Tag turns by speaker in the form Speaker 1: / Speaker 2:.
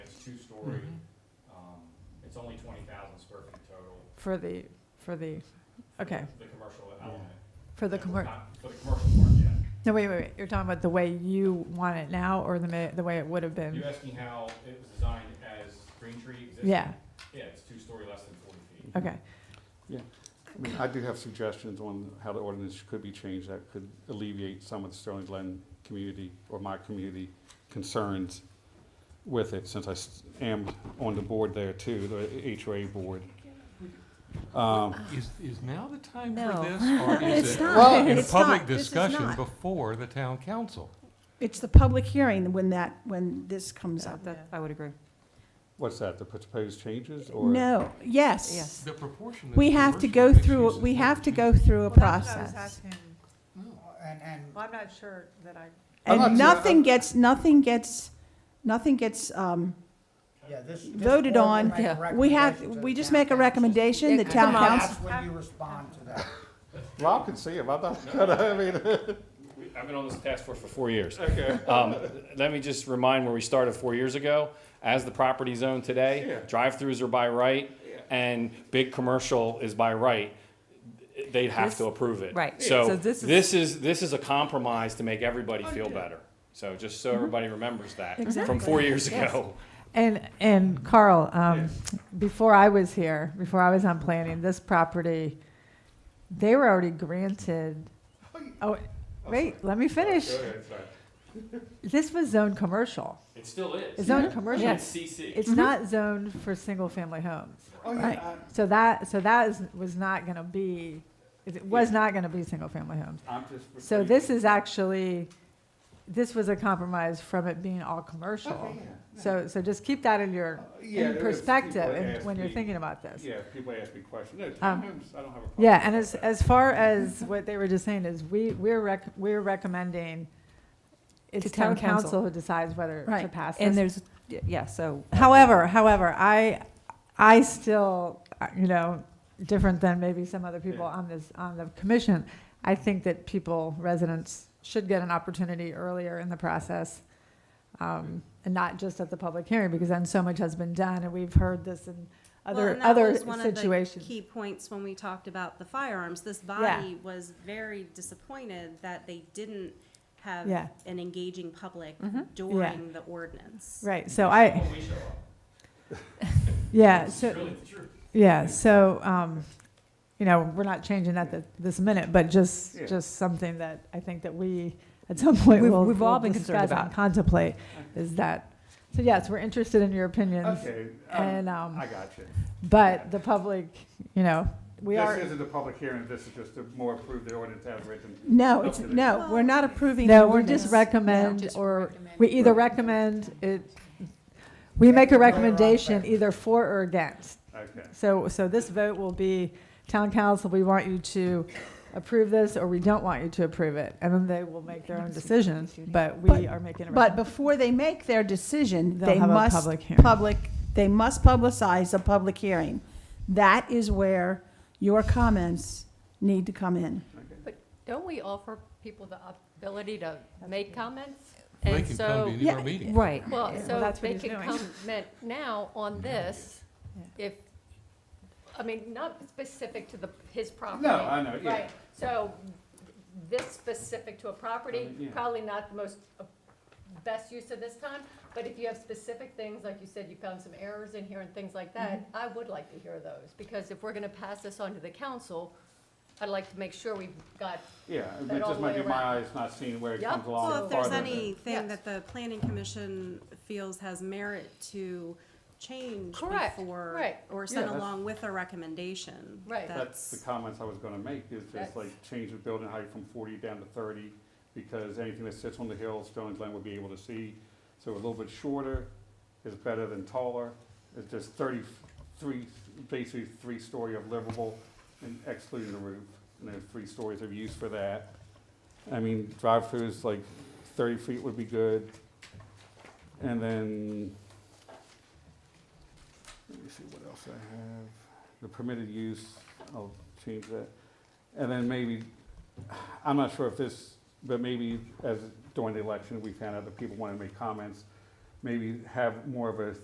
Speaker 1: two-story, um, it's only twenty thousand square feet total.
Speaker 2: for the, for the,
Speaker 1: for the-
Speaker 2: okay,
Speaker 1: The commercial element.
Speaker 2: for the
Speaker 1: Yeah,
Speaker 2: commer,
Speaker 1: not For the commercial part, yeah.
Speaker 2: no, wait, wait, wait, you're talking about the way you want it now or the, ma- the way it would have been?
Speaker 1: You're asking how it was designed as Green Tree existing?
Speaker 2: Yeah,
Speaker 1: Yeah, it's two-story, less than forty feet.
Speaker 2: okay.
Speaker 3: I mean, I do have suggestions on how the ordinance could be changed that could alleviate some of the Sterling Glen community or my community concerns with it, since I s- am on the board there too, the HOA board. Um,
Speaker 4: Is, is now the time
Speaker 5: No.
Speaker 4: for this? or is
Speaker 5: It's
Speaker 4: it
Speaker 5: not.
Speaker 3: Well-
Speaker 4: In
Speaker 5: It's
Speaker 4: public
Speaker 5: not. This is
Speaker 4: discussion
Speaker 5: not.
Speaker 4: before the town council?
Speaker 6: It's the public hearing when that, when this comes up.
Speaker 5: That, I would agree.
Speaker 3: What's that, the proposed changes or?
Speaker 6: No, yes.
Speaker 5: Yes.
Speaker 4: The proportion. of
Speaker 6: We
Speaker 4: the
Speaker 6: have to
Speaker 4: commercial
Speaker 6: go
Speaker 4: mixed
Speaker 6: through,
Speaker 4: use is
Speaker 6: we
Speaker 4: not
Speaker 6: have to go
Speaker 4: changing.
Speaker 6: through a process.
Speaker 4: No.
Speaker 7: And, and
Speaker 5: I'm not sure that I.
Speaker 3: I'm not
Speaker 6: And
Speaker 3: sure-
Speaker 6: nothing gets, nothing gets, nothing gets, um,
Speaker 7: Yeah, this. this
Speaker 6: Voted
Speaker 7: board will
Speaker 6: on.
Speaker 7: make a
Speaker 5: Yeah.
Speaker 6: we have,
Speaker 7: recommendation to
Speaker 6: we
Speaker 7: the
Speaker 6: just
Speaker 7: town
Speaker 6: make a
Speaker 7: council.
Speaker 6: recommendation, the
Speaker 5: Yeah,
Speaker 6: town
Speaker 5: come on.
Speaker 6: council.
Speaker 7: That's when you respond to that.
Speaker 3: Rob can see him, I'm not, I mean,
Speaker 8: We- I've been on this task force for four years.
Speaker 3: okay.
Speaker 8: Um, let me just remind where we started four years ago. As the property's owned
Speaker 3: Yeah.
Speaker 8: today, drive-throughs are by right, and big commercial is by right. They'd have to approve it.
Speaker 5: right. So
Speaker 8: So
Speaker 5: this is-
Speaker 8: this is, this is a compromise to make everybody feel better. So just so everybody remembers that from four years ago.
Speaker 2: And, and Carl, um, before I was here, before I was on planning, this property, they were already granted, oh, wait, let me finish. This was zoned commercial.
Speaker 8: It still
Speaker 2: It's
Speaker 8: is.
Speaker 2: zoned commercial.
Speaker 8: It's CC.
Speaker 2: It's not zoned for single-family homes.
Speaker 3: Oh,
Speaker 6: Right.
Speaker 3: yeah,
Speaker 2: So that, so that is, was not gonna be, it was not gonna be single-family homes.
Speaker 3: I- I'm just.
Speaker 2: So this is actually, this was a compromise from it being all commercial.
Speaker 3: Okay, yeah.
Speaker 2: So, so just keep that in your,
Speaker 3: Yeah,
Speaker 2: in
Speaker 3: if
Speaker 2: perspective
Speaker 3: people
Speaker 2: and
Speaker 3: ask
Speaker 2: when you're
Speaker 3: me-
Speaker 2: thinking about this.
Speaker 3: Yeah, if people ask me questions, no,
Speaker 2: Um,
Speaker 3: townhomes, I don't have a problem.
Speaker 2: Yeah, and
Speaker 3: with
Speaker 2: as,
Speaker 3: that.
Speaker 2: as far as what they were just saying is, we, we're rec, we're recommending, it's
Speaker 5: To
Speaker 2: town
Speaker 5: town council.
Speaker 2: council who decides whether to
Speaker 6: Right,
Speaker 2: pass this.
Speaker 5: And there's, yeah, so.
Speaker 2: However, however, I, I still, uh, you know, different than maybe some other people
Speaker 3: Yeah.
Speaker 2: on this, on the commission, I think that people, residents, should get an opportunity earlier in the process, um, and not just at the public hearing, because then so much has been done, and we've heard this in
Speaker 9: Well,
Speaker 2: other,
Speaker 9: and that
Speaker 2: other
Speaker 9: was one of the
Speaker 2: situations.
Speaker 9: Key points when we talked about the firearms, this body was very disappointed that they didn't have
Speaker 2: Yeah.
Speaker 9: an engaging public
Speaker 5: Mhm.
Speaker 9: during the ordinance.
Speaker 2: Right, so I,
Speaker 1: When we show up,
Speaker 2: yeah,
Speaker 1: it's
Speaker 2: so,
Speaker 1: really the truth.
Speaker 2: yeah, so, um, you know, we're not changing that th- this minute, but just,
Speaker 3: Yeah.
Speaker 2: just something that I think that we, at some point,
Speaker 5: We've-
Speaker 2: will
Speaker 5: we've all
Speaker 2: will
Speaker 5: been concerned
Speaker 2: discuss and
Speaker 5: about.
Speaker 2: Contemplate, is that, so yes, we're interested in your opinions,
Speaker 3: Okay,
Speaker 2: and,
Speaker 3: um,
Speaker 2: um,
Speaker 3: I got you.
Speaker 2: but the public, you know, we are.
Speaker 3: This isn't a public hearing, this is just to more approve the ordinance as written.
Speaker 6: No, it's, no, we're not approving the
Speaker 2: No, we
Speaker 6: ordinance.
Speaker 2: just recommend,
Speaker 5: Just
Speaker 2: or,
Speaker 5: recommend.
Speaker 2: we either recommend it, we make a
Speaker 7: Right or
Speaker 2: recommendation
Speaker 7: wrong.
Speaker 2: either for or against.
Speaker 3: Okay.
Speaker 2: So, so this vote will be, town council, we want you to approve this, or we don't want you to approve it. And then they will make their own decision, but we
Speaker 6: But-
Speaker 2: are making a
Speaker 6: But
Speaker 2: recommendation.
Speaker 6: before they make their decision,
Speaker 2: They'll
Speaker 6: they
Speaker 2: have a
Speaker 6: must.
Speaker 2: public hearing.
Speaker 6: Public, they must publicize a public hearing. That is where your comments need to come in.
Speaker 10: Don't we offer people the ability to make comments?
Speaker 4: They
Speaker 10: And
Speaker 4: can come to
Speaker 10: so,
Speaker 4: any of our meetings.
Speaker 5: Right.
Speaker 10: well,
Speaker 2: Well,
Speaker 10: so
Speaker 2: that's what
Speaker 10: they
Speaker 2: he's
Speaker 10: can
Speaker 2: doing.
Speaker 10: comment now on this, if, I mean, not specific to the, his property.
Speaker 3: No, I know, yeah.
Speaker 10: Oh. Right, so this specific to a property,
Speaker 3: yeah.
Speaker 10: probably not the most, uh, best use of this time, but if you have specific things, like you said, you found some errors in here and things like that,
Speaker 2: Mm-hmm.
Speaker 10: I would like to hear those, because if we're gonna pass this on to the council, I'd like to make sure we've got
Speaker 3: Yeah,
Speaker 10: That
Speaker 3: it
Speaker 10: all
Speaker 3: just
Speaker 10: the
Speaker 3: might
Speaker 10: way
Speaker 3: be my
Speaker 10: around.
Speaker 3: eyes not seeing where it
Speaker 10: Yep.
Speaker 3: comes along.
Speaker 9: Well, if there's
Speaker 3: farther than-
Speaker 9: anything
Speaker 10: Yes.
Speaker 9: that the planning commission feels has merit to change
Speaker 10: Correct,
Speaker 9: before.
Speaker 10: right.
Speaker 9: Or send
Speaker 3: that's-
Speaker 9: along with a recommendation.
Speaker 10: Right.
Speaker 3: That's the
Speaker 9: That's,
Speaker 3: comments I was gonna make, is just
Speaker 10: That's-
Speaker 3: like change the building height from forty down to thirty, because anything that sits on the hill, Sterling Glen would be able to see. So a little bit shorter is better than taller, it's just thirty-three, basically three-story of livable, and excluding the roof, and then three stories of use for that. I mean, drive-throughs, like thirty feet would be good, and then, let me see what else I have the permitted use, I'll change that. And then maybe, I'm not sure if this, but maybe as during the election, we found out that people wanted to make comments, maybe have more of a